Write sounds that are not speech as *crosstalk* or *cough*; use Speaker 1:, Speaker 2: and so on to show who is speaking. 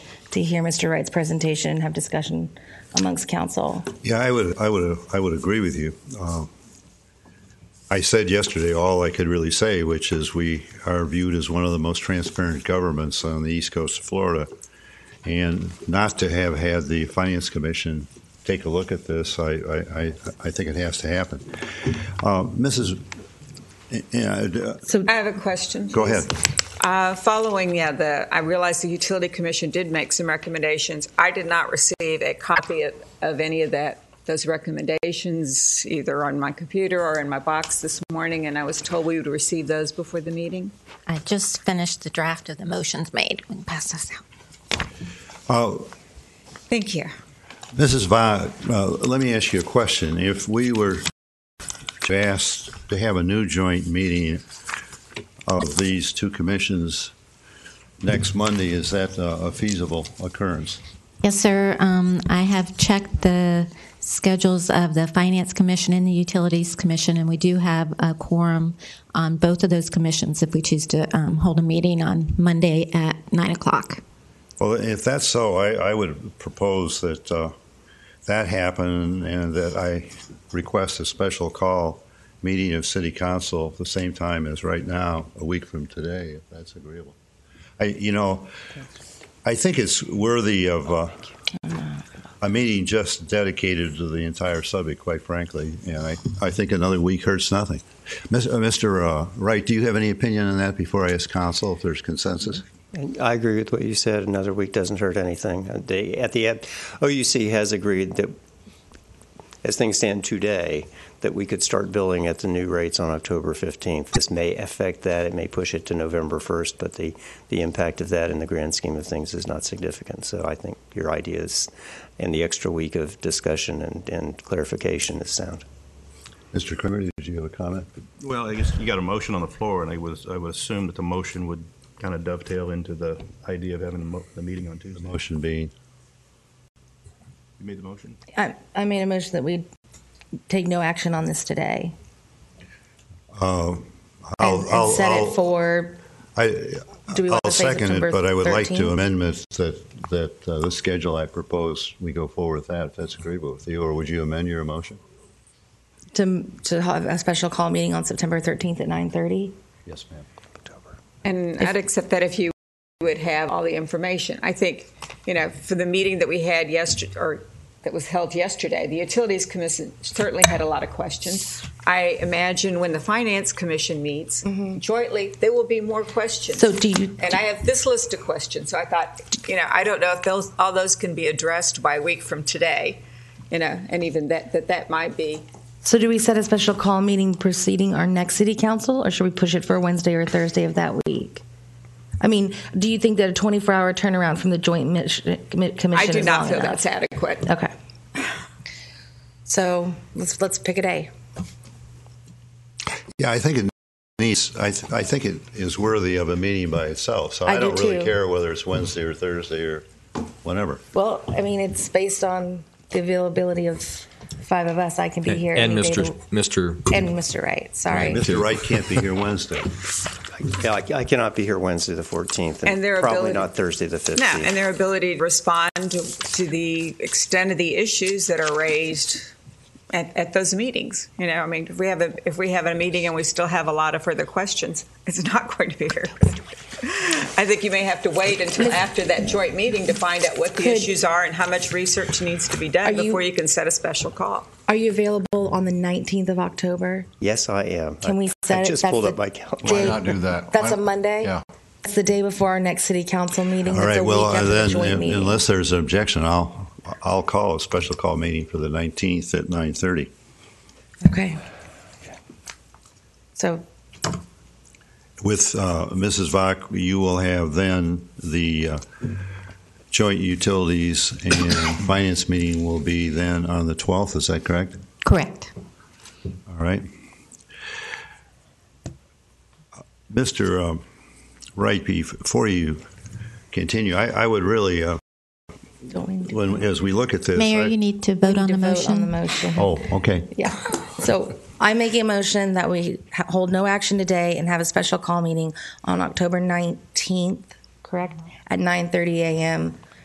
Speaker 1: to hear Mr. Wright's presentation and have discussion amongst council.
Speaker 2: Yeah, I would, I would, I would agree with you. Um, I said yesterday all I could really say, which is we are viewed as one of the most transparent governments on the east coast of Florida. And not to have had the Finance Commission take a look at this, I, I, I, I think it has to happen. Uh, Mrs., yeah,
Speaker 1: So
Speaker 3: I have a question.
Speaker 2: go ahead.
Speaker 3: Uh, Following, yeah, the, I realize the Utility Commission did make some recommendations. I did not receive a copy of- of any of that, those recommendations, either on my computer or in my box this morning, and I was told we would receive those before the meeting.
Speaker 4: I just finished the draft of the motions made. We can pass this out.
Speaker 2: Uh,
Speaker 3: Thank you.
Speaker 2: Mrs. Vaught, uh, let me ask you a question. If we were to ask to have a new joint meeting of these two commissions next Monday, is that uh, a feasible occurrence?
Speaker 4: Yes, sir. Um, I have checked the schedules of the Finance Commission and the Utilities Commission, and we do have a quorum on both of those commissions if we choose to um, hold a meeting on Monday at nine o'clock.
Speaker 2: Well, if that's so, I, I would propose that uh, that happen and that I request a special call meeting of city council at the same time as right now, a week from today, if that's agreeable. I, you know, I think it's worthy of uh, a meeting just dedicated to the entire subject, quite frankly, and I, I think another week hurts nothing. Mis- uh, Mr. uh, Wright, do you have any opinion on that before I ask council if there's consensus?
Speaker 5: And I agree with what you said. Another week doesn't hurt anything. Uh, They, at the end, OUC has agreed that, as things stand today, that we could start billing at the new rates on October 15th. This may affect that. It may push it to November 1st, but the, the impact of that in the grand scheme of things is not significant. So I think your ideas and the extra week of discussion and, and clarification is sound.
Speaker 2: Mr. Kramer, did you have a comment?
Speaker 6: Well, I guess you got a motion on the floor, and I was, I would assume that the motion would kind of dovetail into the idea of having the mo- the meeting on Tuesday.
Speaker 2: Motion being,
Speaker 6: You made the motion?
Speaker 1: I, I made a motion that we take no action on this today
Speaker 2: uh,
Speaker 1: and,
Speaker 2: I'll,
Speaker 1: and
Speaker 2: I'll,
Speaker 1: set it
Speaker 2: I'll,
Speaker 1: for.
Speaker 2: I,
Speaker 1: Do we want
Speaker 2: I'll
Speaker 1: to say
Speaker 2: second
Speaker 1: September
Speaker 2: it, but I would like
Speaker 1: 13th?
Speaker 2: to amend that, that uh, the schedule I propose, we go forward with that, if that's agreeable with you, or would you amend your motion?
Speaker 1: To, to have a special call meeting on September 13th at 9:30.
Speaker 2: Yes, ma'am.
Speaker 3: And I'd accept that if you would have all the information. I think, you know, for the meeting that we had yesterday, or that was held yesterday, the Utilities Commission certainly had a lot of questions. I imagine when the Finance Commission meets jointly, there will be more questions.
Speaker 1: Mm-hmm. So do you-
Speaker 3: And I have this list of questions, so I thought, you know, I don't know if those, all those can be addressed by a week from today, you know, and even that, that that might be.
Speaker 1: So do we set a special call meeting preceding our next city council, or should we push it for Wednesday or Thursday of that week? I mean, do you think that a 24-hour turnaround from the joint mis- commi- commission
Speaker 3: I do
Speaker 1: is
Speaker 3: not
Speaker 1: long
Speaker 3: feel
Speaker 1: enough?
Speaker 3: that's adequate.
Speaker 1: Okay. So let's let's pick a day.
Speaker 2: Yeah, I think it needs, I, th- I think it is worthy of a meeting by itself, so
Speaker 1: I
Speaker 2: I
Speaker 1: do
Speaker 2: don't really
Speaker 1: too.
Speaker 2: care whether it's Wednesday or Thursday or whenever.
Speaker 1: Well, I mean, it's based on the availability of five of us. I can be here
Speaker 7: And
Speaker 1: any day
Speaker 7: Mr.
Speaker 1: to-
Speaker 7: Mr.
Speaker 1: and Mr. Wright. Sorry.
Speaker 2: Mr. Wright can't be
Speaker 1: *laughs*
Speaker 2: here Wednesday.
Speaker 5: Yeah, I, I cannot be here Wednesday the 14th, and,
Speaker 3: And their
Speaker 5: probably
Speaker 3: ability-
Speaker 5: not Thursday the 15th.
Speaker 3: No, and their ability to respond to, to the extent of the issues that are raised at, at those meetings. You know, I mean, if we have a if we have a meeting and we still have a lot of further questions, *laughs* it's not going to be very. good. I think you may have to wait until after that joint meeting to find out what the
Speaker 8: Could-
Speaker 3: issues are and how much research needs to be done
Speaker 8: Are you-
Speaker 3: before you can set a special call.
Speaker 8: Are you available on the 19th of October?
Speaker 5: Yes, I am.
Speaker 8: Can we
Speaker 5: I,
Speaker 8: set
Speaker 5: I
Speaker 8: it-
Speaker 5: just
Speaker 8: that's
Speaker 5: pulled
Speaker 8: the
Speaker 5: up my calendar.
Speaker 8: Why
Speaker 9: not do that?
Speaker 8: That's
Speaker 9: Why-
Speaker 8: a Monday?
Speaker 9: Yeah.
Speaker 8: It's the day before our next city council meeting.
Speaker 2: All
Speaker 8: That's
Speaker 2: right,
Speaker 8: a
Speaker 2: well, uh,
Speaker 8: week after the
Speaker 2: then,
Speaker 8: joint
Speaker 2: un-
Speaker 8: meeting.
Speaker 2: unless there's an objection, I'll, I'll call a special call meeting for the 19th at 9:30.
Speaker 1: Okay. So
Speaker 2: With uh, Mrs. Vach, you will have then the uh, joint utilities and *coughs* finance meeting will be then on the 12th, is that correct?
Speaker 4: Correct.
Speaker 2: All right. Mr. um, Wright, before you continue, I I would really, uh,
Speaker 1: don't we need to
Speaker 2: when- as we look at this.
Speaker 4: Mayor,
Speaker 2: I-
Speaker 4: you need to vote on
Speaker 1: to
Speaker 4: the
Speaker 1: vote on the
Speaker 4: motion.
Speaker 1: motion?
Speaker 2: Oh, okay.
Speaker 1: Yeah. So I make a motion that we ha- hold no action today and have a special call meeting on October 19th, correct? At 9:30 a.m.